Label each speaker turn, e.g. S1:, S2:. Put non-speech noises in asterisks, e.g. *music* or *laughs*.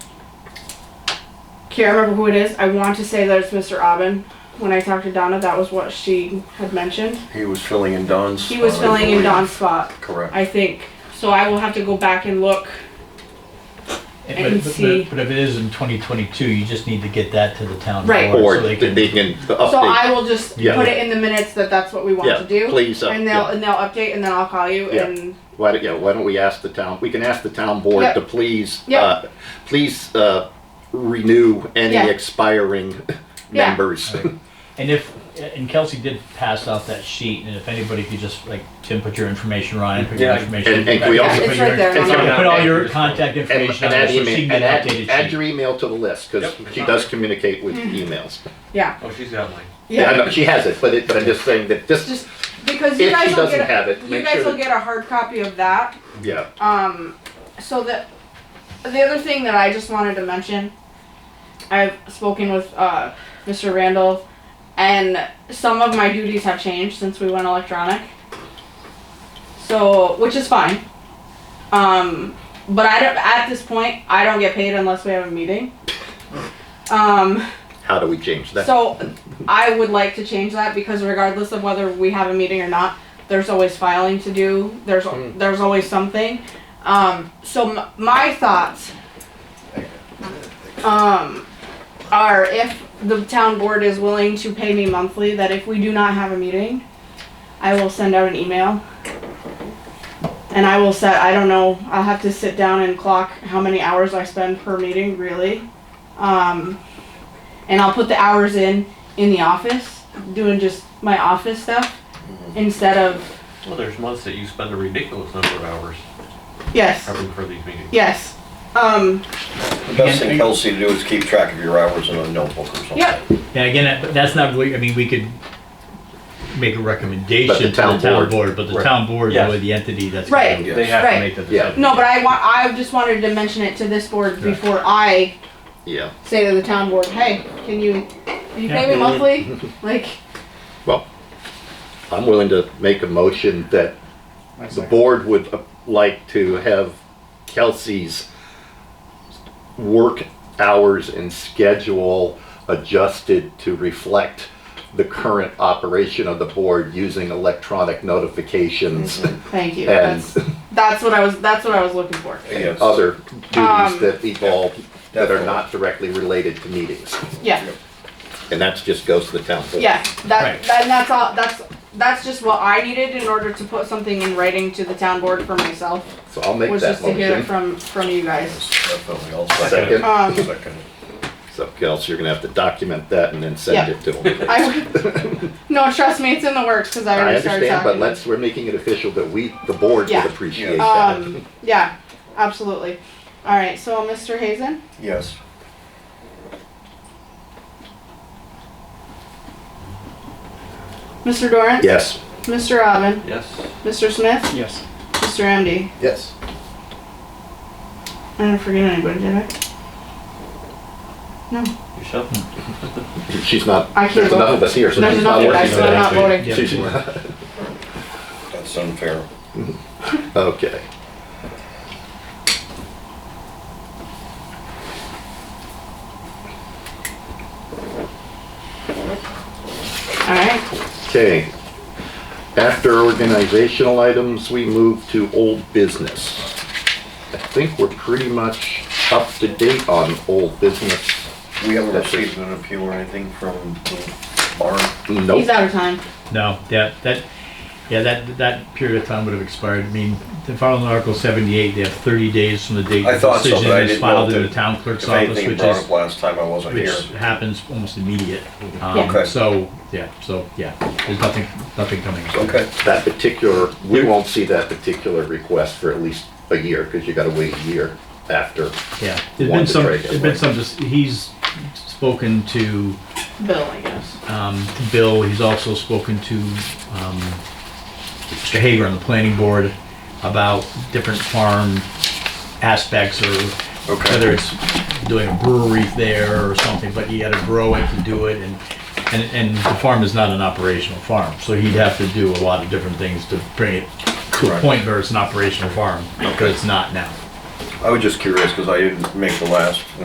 S1: can't remember who it is. I want to say that it's Mr. Aubin. When I talked to Donna, that was what she had mentioned.
S2: He was filling in Don's.
S1: He was
S3: Oh,
S2: spot, I
S1: filling in
S2: believe.
S1: Don's spot,
S2: Correct.
S1: I think. So I will have to go back and look.
S4: But-
S1: can
S4: but- but-
S1: see.
S4: But if it is in 2022, you just need to get that to the town
S1: Right.
S4: board.
S3: Or
S4: so
S3: they
S4: they can-
S3: can
S1: So
S3: update.
S1: I will just
S3: Yeah.
S1: put it in the minutes that that's what we want
S3: Yeah,
S1: to do.
S3: please, uh,
S1: and they'll
S3: yeah.
S1: and they'll update, and then I'll call you.
S3: Yeah.
S1: And
S3: Why don't, yeah, why don't we ask the town, we can ask the town board
S1: Yep.
S3: to please,
S1: Yep.
S3: uh, please, uh, renew any
S1: Yeah.
S3: expiring
S1: Yeah.
S3: *laughs* members.
S4: And if, and Kelsey did pass out that sheet, and if anybody could just, like, Tim, put your information, Ryan, put your
S2: Yeah.
S4: information.
S3: And- and can we
S4: Put
S3: also-
S4: your-
S1: It's right there.
S4: Put your- put all your
S2: Yeah.
S4: contact
S3: And,
S4: information on
S3: and add
S4: there, so she can
S3: email,
S4: get an
S3: and add, add
S4: updated
S3: your
S4: sheet.
S3: email to the list, cause
S5: Yep.
S3: she does communicate with emails.
S1: Mm-hmm. yeah,
S5: Oh, she's got mine.
S3: Yeah,
S1: yeah.
S3: I know, she has it, but it, but I'm just saying that this,
S1: Just because you
S3: if
S1: guys
S3: she
S1: will get
S3: doesn't
S1: a,
S3: have it,
S1: you
S3: make
S1: guys
S3: sure,
S1: will
S3: that-
S1: get a hard copy of that.
S3: yeah,
S1: Um, so that the other thing that I just wanted to mention, I've spoken with uh, Mr. Randall, and some of my duties have changed since we went electronic. So, which is fine. Um, but I don't. At this point, I don't get paid unless we have a meeting. Um,
S3: how do we change that?
S1: so I would like to change that because regardless of whether we have a meeting or not, there's always filing to do. There's
S3: Mm.
S1: there's always something. Um, so m- my thoughts um, are if the town board is willing to pay me monthly, that if we do not have a meeting, I will send out an email. And I will set, I don't know, I'll have to sit down and clock how many hours I spend per meeting, really. Um, and I'll put the hours in in the office, doing just my office stuff
S3: Mm-hmm.
S1: instead of
S5: Well, there's months that you spend a ridiculous number of hours
S1: yes,
S5: prepping for these meetings.
S1: yes, um,
S2: The best thing Kelsey to do is keep track of your hours in a notebook or something.
S1: yep,
S4: Yeah, again, that- but that's not really, I mean, we could make a recommendation
S3: But the
S4: to the
S3: town
S4: town
S3: board-
S4: board, but the
S3: right.
S4: town board is
S5: Yes.
S4: really the entity that's.
S1: Right.
S4: gonna
S5: They have to
S1: Right.
S4: Make the
S3: Yeah.
S4: decision.
S1: no, but I want I just wanted to mention it to this board
S4: Right.
S1: before I
S3: Yeah,
S1: say to the town board, hey, can you can you pay me
S3: Yeah.
S1: monthly?
S3: *laughs*
S1: Like,
S3: I'm willing to make a motion that the board would uh, like to have Kelsey's work hours and schedule adjusted to reflect the current operation of the board using electronic
S1: Mm-hmm.
S3: notifications
S1: thank you.
S3: and
S1: That's that's what I was that's what I was looking for.
S2: Yes.
S3: other
S1: Um,
S3: duties that evolve that are not directly related to meetings.
S1: Yeah,
S3: And that's just goes to the town board.
S1: yeah. That,
S4: Right.
S1: that that's all that's that's just what I needed in order to put something in writing to the town board for myself.
S3: So I'll make
S1: was
S3: that
S1: just to hear it from
S3: motion.
S1: from you guys.
S2: Definitely, I'll second.
S3: Second.
S1: Um,
S2: Second.
S3: So Kelsey, you're gonna have to document that and then send
S1: Yeah.
S3: it to them.
S1: I *laughs* no, trust me, it's in the works because I
S3: I
S1: already started
S3: understand,
S1: talking.
S3: but let's, we're making it official that we, the board
S1: Yeah.
S3: would appreciate that.
S1: Um, yeah, absolutely. All right, so Mr. Hazen,
S2: Yes.
S1: Mr. Dorrance,
S3: Yes.
S1: Mr. Robin,
S5: Yes.
S1: Mr. Smith,
S6: Yes.
S1: Mr. MD.
S2: Yes.
S1: I didn't forget anybody, did I?
S5: Yourself?
S3: She's not,
S1: I can't
S3: there's enough of
S1: vote.
S3: us here, so
S1: There's
S3: she's
S1: enough
S3: not
S1: of us,
S3: working.
S1: so I'm not
S3: today.
S1: voting.
S4: Yeah.
S3: She's-
S2: That's unfair.
S3: Okay.
S1: All right,
S3: Okay. After organizational items, we move to old business. I think we're pretty much up to date on old business.
S2: We haven't received an appeal or anything from the bar.
S1: he's
S3: Nope.
S1: out of time.
S4: No, that, that, yeah, that, that period of time would have expired. I mean, the following Article seventy-eight, they have thirty days from the date
S2: I
S4: the
S2: thought so,
S4: decision
S2: but I
S4: is
S2: didn't
S4: filed
S2: know
S4: in the
S2: that-
S4: town clerk's
S2: If
S4: office,
S2: anything
S4: which
S2: brought up
S4: is,
S2: last time, I wasn't here.
S4: which happens almost immediate.
S1: Yeah.
S4: Um,
S2: Okay.
S4: so, yeah, so, yeah, there's nothing, nothing coming.
S2: Okay.
S3: That particular, we won't see that particular request for at least a year, because you gotta wait a year after.
S4: Yeah, there's
S3: Wanted
S4: been some,
S3: break,
S4: there's been
S3: right.
S4: some, dis- he's spoken to,
S1: Bill, I guess.
S4: um, to Bill, he's also spoken to, um, Mr. Hager on the planning board about different farm aspects or
S2: Okay.
S4: whether it's doing a brewery there or something, but you gotta grow it to do it and, and, and the farm is not an operational farm, so he'd have to do a lot of different things to bring it to a
S2: Correct.
S4: point where it's an operational farm, but it's not now.
S2: I was just curious because I didn't make the last